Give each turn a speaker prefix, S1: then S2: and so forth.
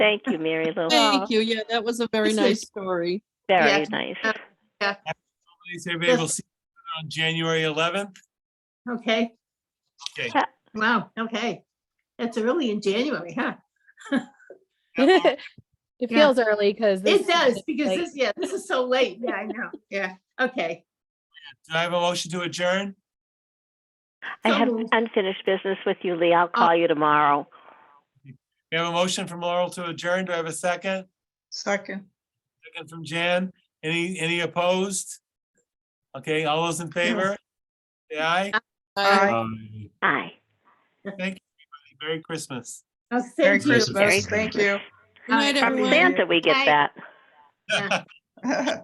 S1: Thank you, Mary Lou.
S2: Thank you. Yeah, that was a very
S3: This
S2: nice
S3: is-
S2: story.
S1: Very
S3: Yes.
S1: nice.
S4: Please, everybody, we'll see you on January 11th.
S3: Okay,
S4: Okay.
S3: wow, okay. That's early in January, huh?
S5: it
S3: Yeah.
S5: feels early because
S3: It does, because this, yeah, this is so late. Yeah, I know. Yeah, okay.
S4: Do I have a motion to adjourn?
S1: I
S3: So
S1: have
S3: moved. Oh.
S1: unfinished business with you, Lee. I'll call you tomorrow.
S4: We have a motion from Laurel to adjourn. Do I have a second?
S6: Second.
S4: Second from Jan. Any, any opposed? Okay, all those in favor? Say aye.
S2: I-
S6: Aye.
S4: Aye.
S1: Aye.
S4: Thank you. everybody. Merry Christmas.
S3: I'll
S6: Merry
S3: send you.
S6: Christmas. Thank you.
S2: Good night,
S3: Happy
S1: From
S2: everyone.
S3: Thanksgiving.
S1: Santa, we get
S3: Bye.
S1: that.